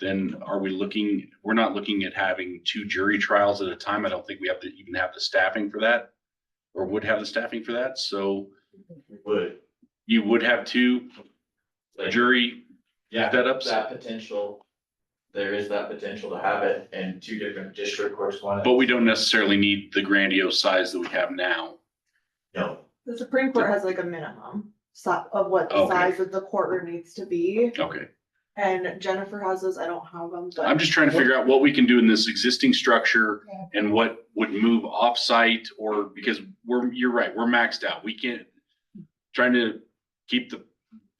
then are we looking, we're not looking at having two jury trials at a time. I don't think we have to even have the staffing for that. Or would have the staffing for that, so Would. you would have two a jury Yeah, setups. that potential, there is that potential to have it in two different district courts, one. But we don't necessarily need the grandiose size that we have now. No, The Supreme Court has like a minimum si- of what the Okay. size of the courtroom needs to be, Okay, and Jennifer has those, I don't have them, I'm but. just trying to figure out what we can do in this existing structure and what would move offsite or because we're, you're right, we're maxed out. We can't. Trying to keep the,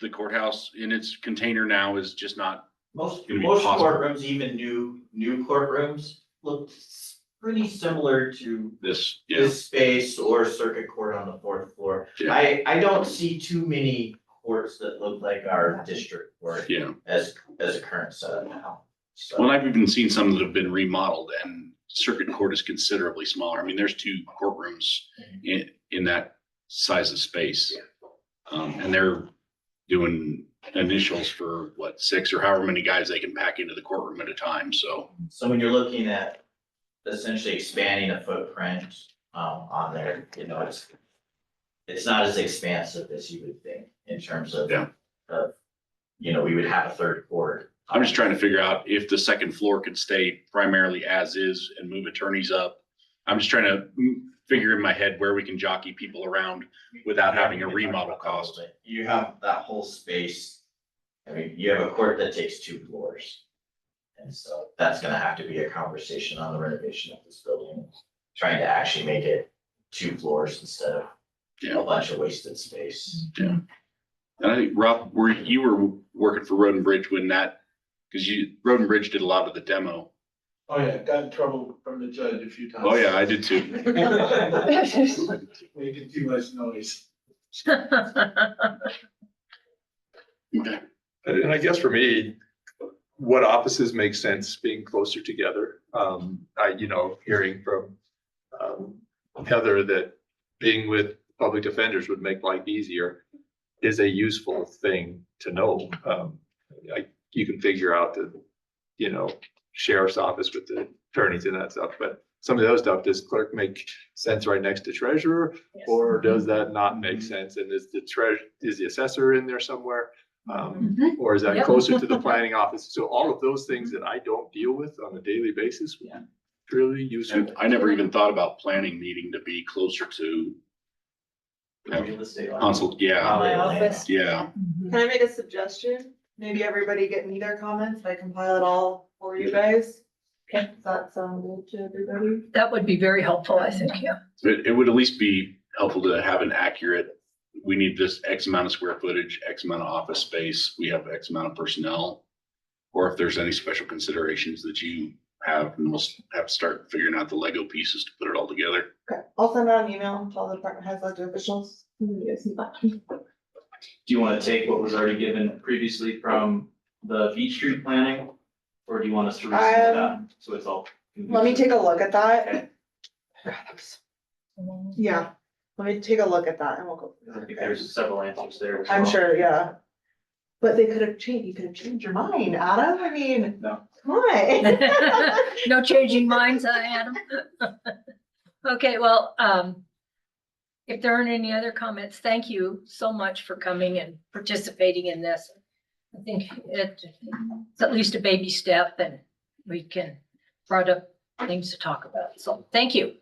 the courthouse in its container now is just not, most, It'd be most possible. courtrooms, even new, new courtrooms, look s- pretty similar to this, yeah, this space or circuit court on the fourth floor. Yeah. I, I don't see too many courts that look like our district court yeah. as, as a current setup now, so. Well, I've even seen some that have been remodeled and circuit court is considerably smaller. I mean, there's two courtrooms in, in that size of space. Um, and they're doing initials for what, six or however many guys they can pack into the courtroom at a time. So So when you're looking at essentially expanding a footprint um on there, you know, it's. It's not as expansive as you would think in terms of. Yeah. Of, you know, we would have a third court. I'm just trying to figure out if the second floor could stay primarily as is and move attorneys up. I'm just trying to mm, figure in my head where we can jockey people around without having a remodel cost. You have that whole space. I mean, you have a court that takes two floors. And so that's gonna have to be a conversation on the renovation of this building, trying to actually make it two floors instead of Yeah. a bunch of wasted space. And I think Rob, were you were working for Roden Bridge when that, because you, Roden Bridge did a lot of the demo. Oh, yeah, got in trouble from the judge a few times. Oh yeah, I did too. Making too much noise. And I guess for me, what offices make sense being closer together? Um, I, you know, hearing from um, Heather that being with public defenders would make life easier is a useful thing to know. Um, I, you can figure out the, you know, sheriff's office with the attorneys and that stuff, but some of the other stuff, does clerk make sense right next to treasurer? Or does that not make sense? And is the treasure, is the assessor in there somewhere? Um, or is that Yep. closer to the planning office? So all of those things that I don't deal with on a daily basis. would be Really useful. And I never even thought about planning needing to be closer to Real estate. consult, yeah, Probably My Atlanta. office. yeah. Can I make a suggestion? Maybe everybody get me their comments, and I compile it all for you guys? Okay. Does that sound good to everybody? That would be very helpful, I think, yeah. It, it would at least be helpful to have an accurate, we need this X amount of square footage, X amount of office space, we have X amount of personnel. Or if there's any special considerations that you have, and we'll s- have to start figuring out the Lego pieces to put it all together. Okay, I'll send out an email to all the department heads, elected officials. You guys need that. Do you want to take what was already given previously from the Beach Street planning? Or do you want us to resubmit that? Um, So it's all. Let me take a look at that. Okay. God, that was- Yeah, let me take a look at that and we'll go. I from think there. there's several answers there. as I'm well. sure, yeah. But they could have changed, you could have changed your mind, Adam, I mean. No. Why? No changing minds, I Adam. Okay, well, um, if there aren't any other comments, thank you so much for coming and participating in this. I think it- it's at least a baby step and we can brought up things to talk about. So thank you.